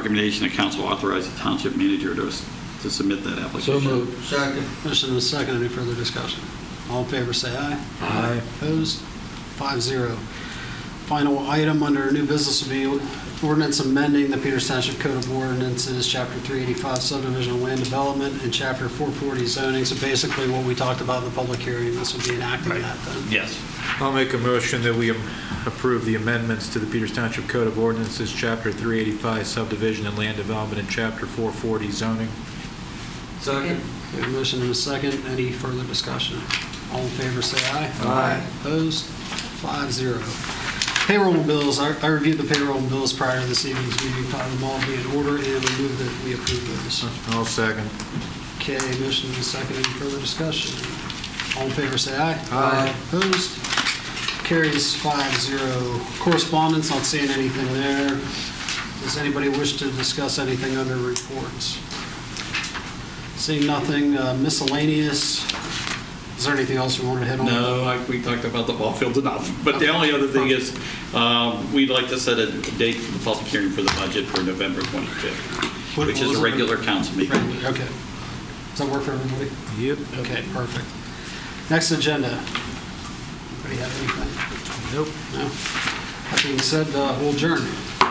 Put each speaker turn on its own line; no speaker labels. recommendation that council authorize the township manager to to submit that
So
application.
moved.
Second.
Motion and a second, any further discussion? All in favor, say aye.
Aye.
Opposed? Five zero. Final item under new business will be ordinance amending the Peters Township Code of Ordinances, Chapter 385 subdivision of land development, and Chapter 440 zoning, so basically what we talked about in the public hearing, this would be enacting
Right.
that then.
Yes.
I'll make a motion that we am- approve the amendments to the Peters Township Code of Ordinances, Chapter 385 subdivision and land development, and Chapter 440 zoning.
Second.
We have a motion and a second. Any further discussion? All in favor, say aye.
Aye.
Opposed? Five zero. Payroll and bills. I I reviewed the payroll and bills prior to this evening's meeting, found them all to be in order, and we move that we approve those.
I'll second.
Okay, motion and a second. Any further discussion? All in favor, say aye.
Aye.
Opposed? Carries five zero. Correspondence, not seeing anything there. Does anybody wish to discuss anything under reports? Seeing nothing uh, miscellaneous. Is there anything else we want to hit on?
No, I- we talked about the ball field enough. But the only other thing is, um, we'd like to set a date for the public hearing for the budget for November 25th,
What-
which
what
is
was
a
it?
regular council
Right,
meeting.
Okay. Does that work for everybody?
Yep.
Okay, perfect. Next agenda. Anybody have anything?
Nope.
No? That being said, uh, we'll adjourn.